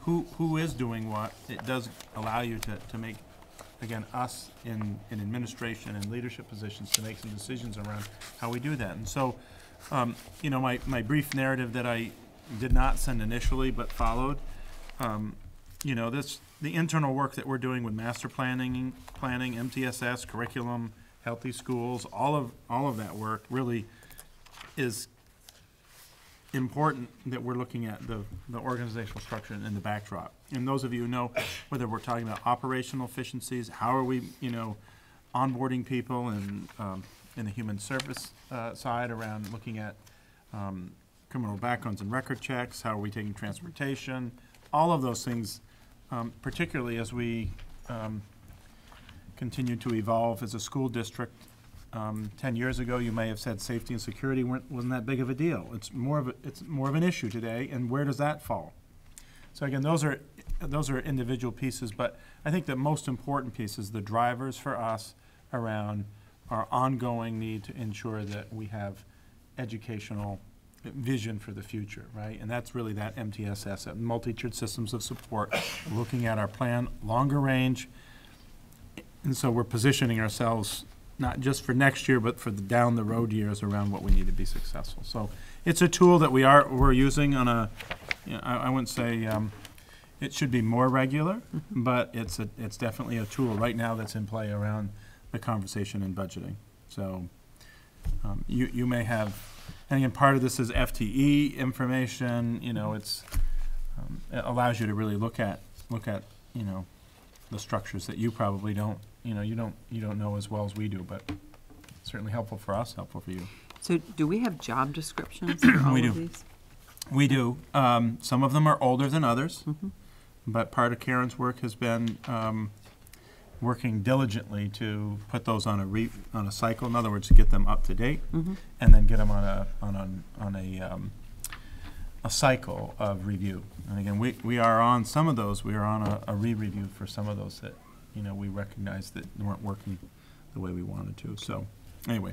who, who is doing what, it does allow you to, to make, again, us in, in administration and leadership positions to make some decisions around how we do that. And so, um, you know, my, my brief narrative that I did not send initially but followed, um, you know, this, the internal work that we're doing with master planning, planning, MTSS, curriculum, healthy schools, all of, all of that work really is important that we're looking at the, the organizational structure and the backdrop. And those of you who know, whether we're talking about operational efficiencies, how are we, you know, onboarding people and, um, in the human service, uh, side around looking at, um, criminal backgrounds and record checks, how are we taking transportation, all of those things, um, particularly as we, um, continue to evolve as a school district. Um, ten years ago, you may have said safety and security weren't, wasn't that big of a deal. It's more of a, it's more of an issue today, and where does that fall? So again, those are, those are individual pieces, but I think the most important piece is the drivers for us around our ongoing need to ensure that we have educational vision for the future, right? And that's really that MTSS, that multi-tiered systems of support, looking at our plan, longer range, and so we're positioning ourselves not just for next year, but for the down the road years around what we need to be successful. So it's a tool that we are, we're using on a, you know, I, I wouldn't say, um, it should be more regular, but it's a, it's definitely a tool right now that's in play around the conversation and budgeting. So, um, you, you may have, and again, part of this is FTE information, you know, it's, um, it allows you to really look at, look at, you know, the structures that you probably don't, you know, you don't, you don't know as well as we do, but certainly helpful for us, helpful for you. So do we have job descriptions for all do. of these? We do. Um, some of them are older than others, but part of Karen's work has been um, working diligently to put those on a re, on a cycle. In other words, get them up to date, Mm-hmm. and then get them on a on a on a um, a cycle of review. And again, we, we are on some of those. We are on a, a re-review for some of those that you know we recognize that weren't working the way we wanted to. So anyway,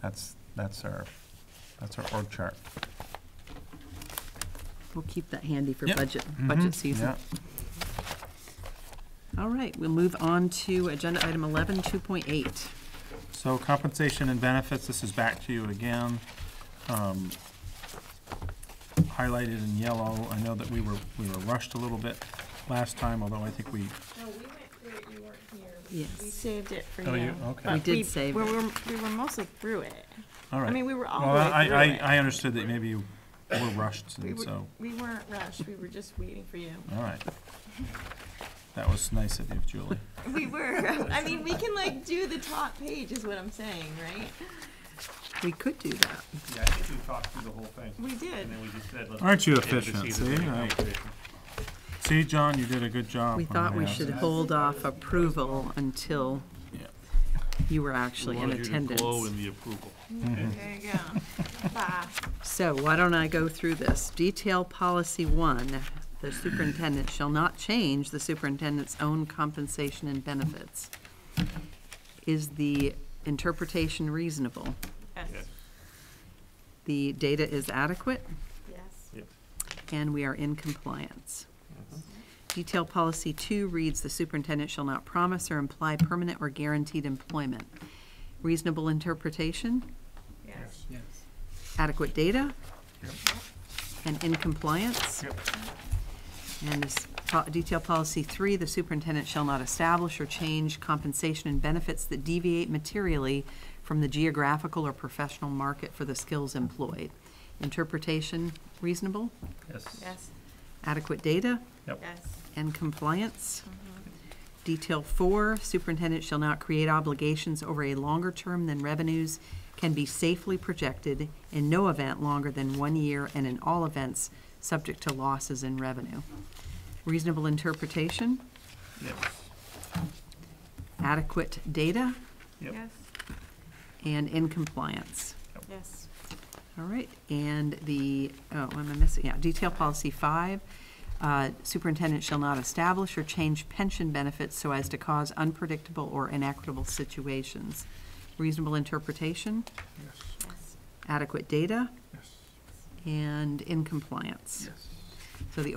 that's that's our that's our org chart. We'll keep that handy for Yep. budget, Mhm. budget Yeah. season. All right, we'll move on to agenda item 11, 2.8. So compensation and benefits, this is back to you again. Um, Highlighted in yellow, I know that we were, we were rushed a little bit last time, although I think we, No, we went through it, you weren't here. We Yes. saved it for you. Oh, you- okay. but We did save we it. were- We were mostly through it. all right. I mean, we were all Well, the I, way through I, it. I understood that maybe you were rushed, We and were- so, We weren't rushed, we were just waiting for you. all right. That was nice of you, Julie. We were, I mean, we can like do the top page is what I'm saying, right? We could do that. Yeah, I think we talked through the whole thing, We did. and then we just said, let's. Aren't you end the efficient, season see? with a I- competition. See, John, you did a good job. We on thought we that. should hold off approval until Yeah. you were actually in attendance. the approval. There you go. Bah. So why don't I go through this? Detail policy one, the superintendent shall not change the superintendent's own compensation and benefits. Is the interpretation reasonable? Yes, Yes. The data is adequate? yes. and we are in compliance. Detail policy two reads, "The superintendent shall not promise or imply permanent or guaranteed employment." Reasonable interpretation, Yes. adequate data, and in compliance. Yep. And this po- detail policy three, "The superintendent shall not establish or change compensation and benefits that deviate materially from the geographical or professional market for the skills employed." Interpretation, reasonable, Yes. Yes, adequate data, yes, and compliance. Detail four, superintendent shall not create obligations over a longer term than revenues can be safely projected, in no event longer than one year, and in all events, subject to losses in revenue. Reasonable interpretation, Yes. adequate data, Yep. yes, and in compliance. yes, All right, and the, oh, what am I missing? Yeah, detail policy five, uh, superintendent shall not establish or change pension benefits so as to cause unpredictable or inequitable situations. Reasonable interpretation, yes, adequate data, Yes. and in compliance. Yes. So the